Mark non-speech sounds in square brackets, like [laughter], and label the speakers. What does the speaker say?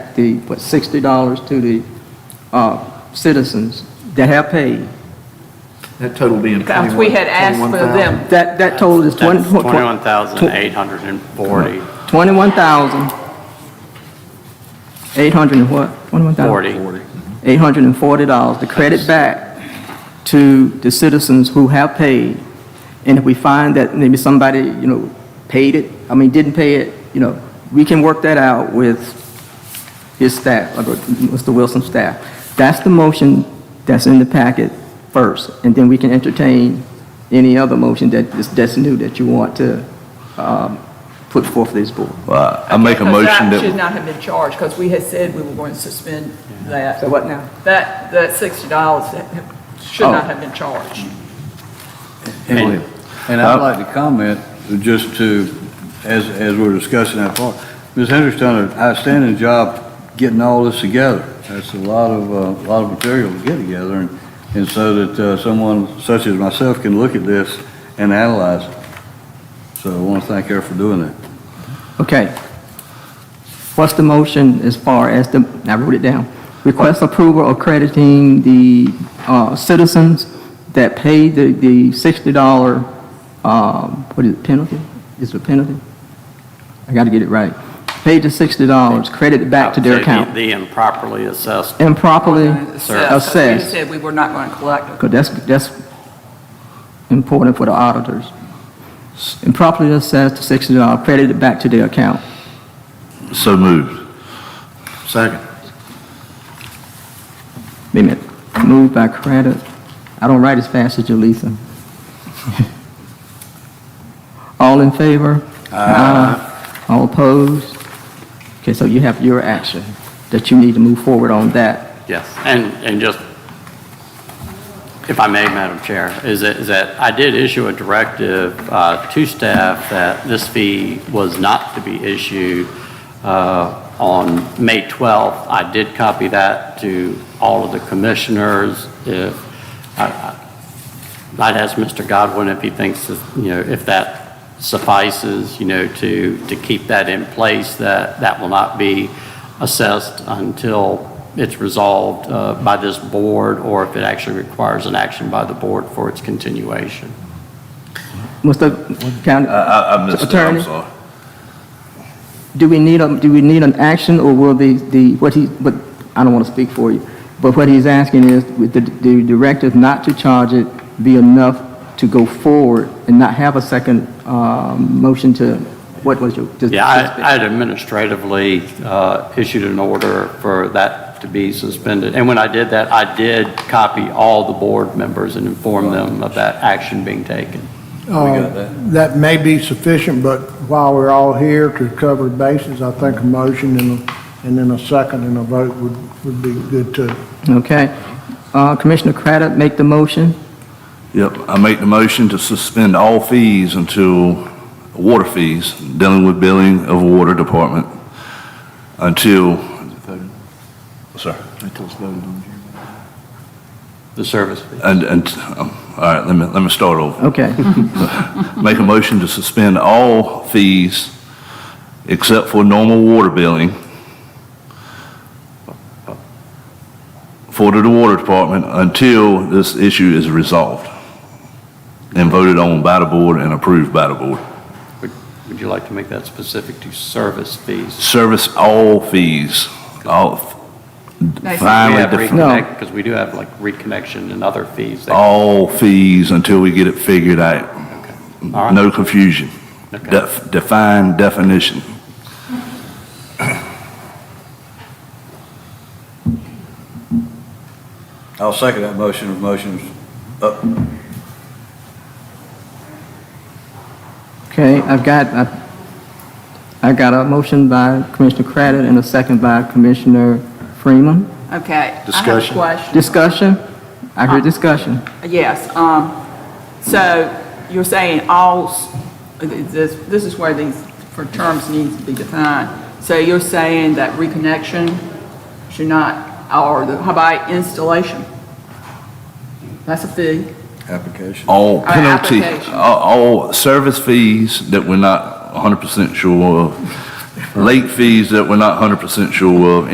Speaker 1: back the, what, $60 to the uh, citizens that have paid.
Speaker 2: That total being
Speaker 3: Because we had asked for
Speaker 2: 21,000.
Speaker 3: them.
Speaker 1: That, that total is 20...
Speaker 4: That's 21,840,
Speaker 1: 21,800 and what? 21,000?
Speaker 4: 40.
Speaker 1: $840 to credit back to the citizens who have paid. And if we find that maybe somebody, you know, paid it, I mean, didn't pay it, you know, we can work that out with his staff, like, with Mr. Wilson's staff. That's the motion that's in the packet first, and then we can entertain any other motion that is, that's new that you want to, um, put forth for this board.
Speaker 5: Well, I I make a
Speaker 3: Because
Speaker 5: motion
Speaker 3: That should
Speaker 5: that,
Speaker 3: not have been charged, because we had said we were going to suspend that.
Speaker 1: So what now?
Speaker 3: That, that sixty dollars should
Speaker 1: Oh.
Speaker 3: not have been charged.
Speaker 6: And and I'd like to comment, just to, as, as we're discussing that part, Ms. Hendricks done an outstanding job getting all this together. That's a lot of, uh lot of material to get together, and, and so that uh, someone such as myself can look at this and analyze it. So I want to thank her for doing that.
Speaker 1: Okay. What's the motion as far as the, I wrote it down. Request approval of crediting the uh, citizens that paid the, the sixty dollar, um, what is it, penalty? Is it a penalty? I gotta get it right. Paid the sixty dollars, credited back to their
Speaker 4: Say the-
Speaker 1: account.
Speaker 4: The improperly assessed
Speaker 1: Improperly
Speaker 3: Assessed, 'cause We
Speaker 1: assessed,
Speaker 3: said we were not going to collect it.
Speaker 1: because that's, that's important for the auditors. Improperly assessed the sixty dollar, credited back to their account.
Speaker 5: so moved.
Speaker 6: Second.
Speaker 1: Wait a minute. Moved by Craddock. I don't write as fast as you, Lisa. [laughs] All in favor? Aye. All opposed? Okay, so you have your action that you need to move forward on that.
Speaker 4: Yes, and, and just, if I may, Madam Chair, is that, is that I did issue a directive uh, to staff that this fee was not to be issued uh, on May 12th. I did copy that to all of the commissioners. If, I- I- I'd ask Mr. Godwin if he thinks, that, you know, if that suffices, you know, to, to keep that in place, that that will not be assessed until it's resolved uh, by this board, or if it actually requires an action by the board for its continuation.
Speaker 1: Mr. County
Speaker 5: I, I I missed it, I'm
Speaker 1: Attorney,
Speaker 5: sorry.
Speaker 1: do we need, a do we need an action or will the, the, what he, but, I don't want to speak for you, but what he's asking is with the, the directive not to charge it be enough to go forward and not have a second, um, motion to, what was your? to-
Speaker 4: Yeah, I I had administratively uh, issued an order for that to be suspended. And when I did that, I did copy all the board members and inform them of that action being taken.
Speaker 6: got
Speaker 7: Uh, That may be sufficient, but while we're all here to cover bases, I think a motion and, a- and then a second and a vote would, would be good too.
Speaker 1: Okay. Uh, Commissioner Craddock make the motion.
Speaker 5: Yep, I make the motion to suspend all fees until, water fees, dealing with billing of water department, until, sorry,
Speaker 4: The service fee.
Speaker 5: and, and, um, all right, let me, let me start over.
Speaker 1: Okay.
Speaker 5: Make a motion to suspend all fees except for normal water billing for the water department until this issue is resolved and voted on by the board and approved by the board.
Speaker 4: Would would you like to make that specific to service fees?
Speaker 5: Service all fees, all,
Speaker 4: We
Speaker 5: finally,
Speaker 4: have
Speaker 5: defi-
Speaker 4: reconnect, because we do have like reconnection and other fees. that-
Speaker 5: all fees until we get it figured out.
Speaker 4: All right.
Speaker 5: No confusion.
Speaker 4: Okay.
Speaker 5: Def- Define definition.
Speaker 6: I'll second that motion uh, if motion's up.
Speaker 1: Okay, I've got, I- I got a motion by Commissioner Craddock and a second by Commissioner Freeman.
Speaker 3: Okay. I have a
Speaker 6: Discussion.
Speaker 3: question.
Speaker 1: Discussion? I heard discussion.
Speaker 3: Yes, um, so you're saying all, s- this, this is where these, for terms need to be defined. So you're saying that reconnection should not, or the, how about installation? That's a fee.
Speaker 6: Application.
Speaker 5: all
Speaker 3: Our
Speaker 5: penalty, uh,
Speaker 3: application.
Speaker 5: all all service fees that we're not 100% sure of, late fees that we're not 100% sure of,